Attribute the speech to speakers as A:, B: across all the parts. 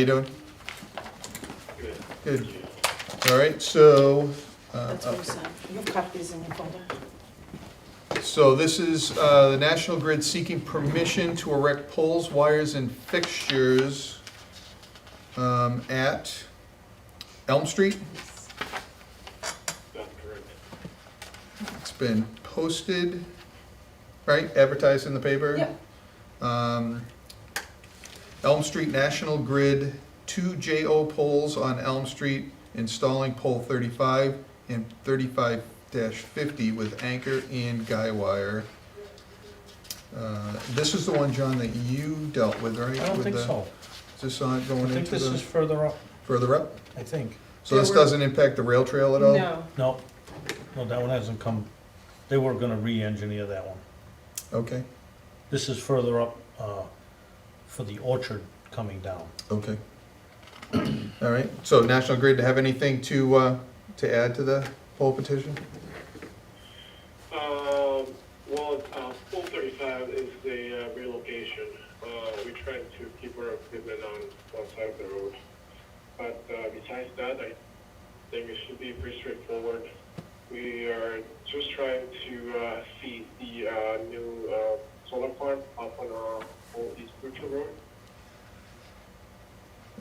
A: you doing? Good. All right, so, uh,
B: That's what
A: uh,
B: you signed. You have copies in your folder.
A: so this is, uh, the National Grid seeking permission to erect poles, wires, and fixtures, um, at Elm Street. It's been posted, right, advertised in the paper? Um, Elm Street National Grid, two JO poles on Elm Street, installing pole thirty-five and thirty-five fifty with anchor and guy wire. Uh, This is the one, John, that you dealt with, right?
C: I don't
A: With
C: think
A: the-
C: so.
A: Is this on,
C: I
A: going
C: think
A: into
C: this is
A: the,
C: further up,
A: further up?
C: I think.
A: So this
B: There were-
A: doesn't impact the rail trail at all?
B: No,
C: No, no, that one hasn't come. They were gonna re-engineer that one.
A: Okay,
C: This is further up, uh, for the orchard coming down.
A: okay. All right, so National Grid, to have anything to, uh, to add to the poll petition?
D: Um, well, uh, Pool 35 is the uh, relocation. Uh, we tried to keep our equipment on one side of the road. But uh, besides that, I think it should be pretty straightforward. We are just trying to uh, feed the uh, new uh, solar farm up on uh, our old East Butcher Road.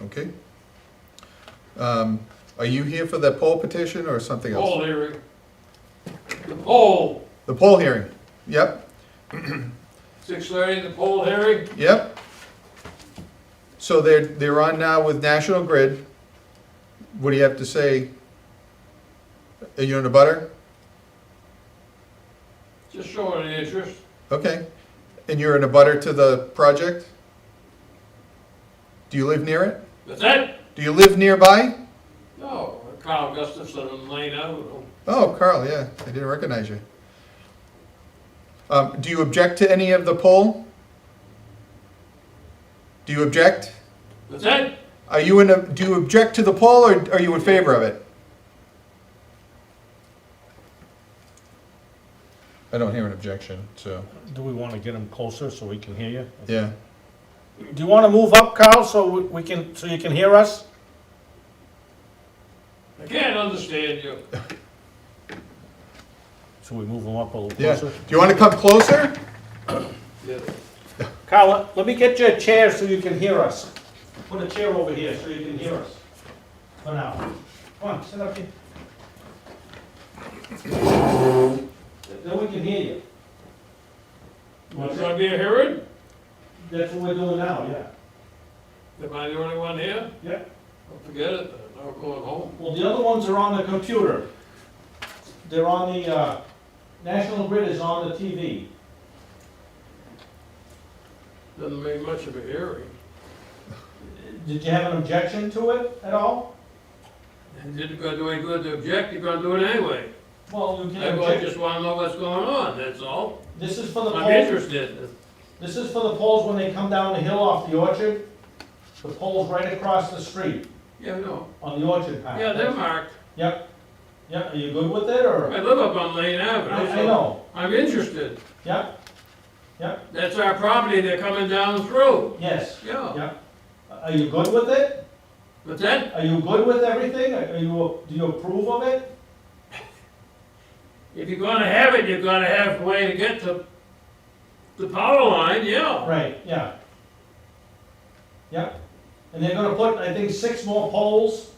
A: Okay. Um, Are you here for the poll petition or something
E: Poll
A: else?
E: hearing. The poll,
A: The poll hearing? Yep,
E: six thirty, the poll hearing,
A: yep. So they're, they're on now with National Grid. What do you have to say? Are you in a butter?
E: just showing the interest.
A: Okay. And you're in a butter to the project? Do you live near it?
E: That's it?
A: Do you live nearby?
E: No, Carl Gustafson and Lane Avenue.
A: Oh, Carl, yeah, I didn't recognize you. Um, do you object to any of the poll? Do you object?
E: That's it?
A: Are you in a, do you object to the poll or are you in favor of it? I don't hear an objection, so,
C: Do we wanna get him closer so we can hear you?
A: yeah.
C: Do you wanna move up, Carl, so we- we can, so you can hear us?
E: I can't understand you.
C: Should we move him up a little
A: Yeah,
C: closer?
A: do you wanna come closer?
C: Carl, let- let me get you a chair so you can hear us. Put a chair over here so you can hear us. For now. Come on, sit up here. Then we can hear you.
E: Want to be a hearing?
C: That's what we're doing now, yeah.
E: Am I the only one here?
C: Yeah.
E: Well, Forget it, I'm not going home.
C: Well, the other ones are on the computer. They're on the, uh, National Grid is on the TV.
E: Doesn't make much of a hearing.
C: Did you have an objection to it at all?
E: It didn't gonna do any good to object, you're gonna do it anyway.
C: Well, you can
E: I
C: object.
E: just wanna know what's going on, that's all.
C: This is for the
E: I'm
C: polls,
E: interested.
C: this is for the polls when they come down the hill off the orchard. The polls right across the street
E: Yeah, no,
C: on the orchard path.
E: yeah, they're marked.
C: Yep, yep, are you good with it, or?
E: I live up on Lane
C: I,
E: Avenue,
C: I
E: so
C: know,
E: I'm interested.
C: yep,
E: That's our property, they're coming down through,
C: yes,
E: yeah.
C: yep. Are you good with it?
E: But that,
C: Are you good with everything? Are you, do you approve of it?
E: if you're gonna have it, you're gonna have a way to get to the power line, yeah.
C: Right, yeah. Yep, and they're gonna put, I think, six more poles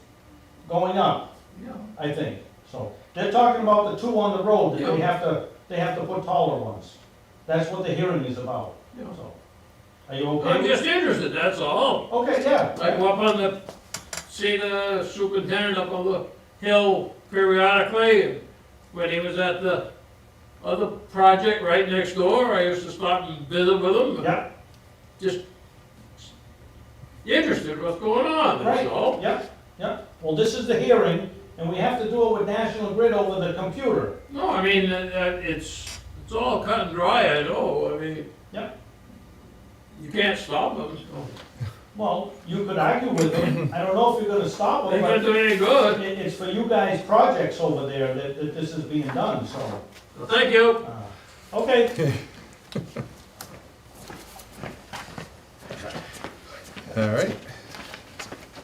C: going up,
E: Yeah.
C: I think, so. They're talking about the two on the road, that they
E: Yeah.
C: have to, they have to put taller ones. That's what the hearing is about,
E: Yeah.
C: so. Are you
E: I'm
C: okay?
E: just interested, that's all.
C: Okay,
E: I
C: yeah,
E: go up on the, see the superintendent up on the hill periodically, and when he was at the other project right next door, I used to stop and visit with him, and
C: yep,
E: just interested what's going on, that's all.
C: right, yep, yep. Well, this is the hearing, and we have to do it with National Grid over the computer.
E: No, I mean, uh, uh, it's, it's all cut and dry, I know, I mean,
C: Yep,
E: you can't stop them, so.
C: well, you could argue with them, I don't know if you're gonna stop
E: They
C: them,
E: can't
C: but.
E: do any good.
C: It, it's for you guys' projects over there that, that this is being done, so,
E: Well, Thank you.
C: uh, okay,
A: All right,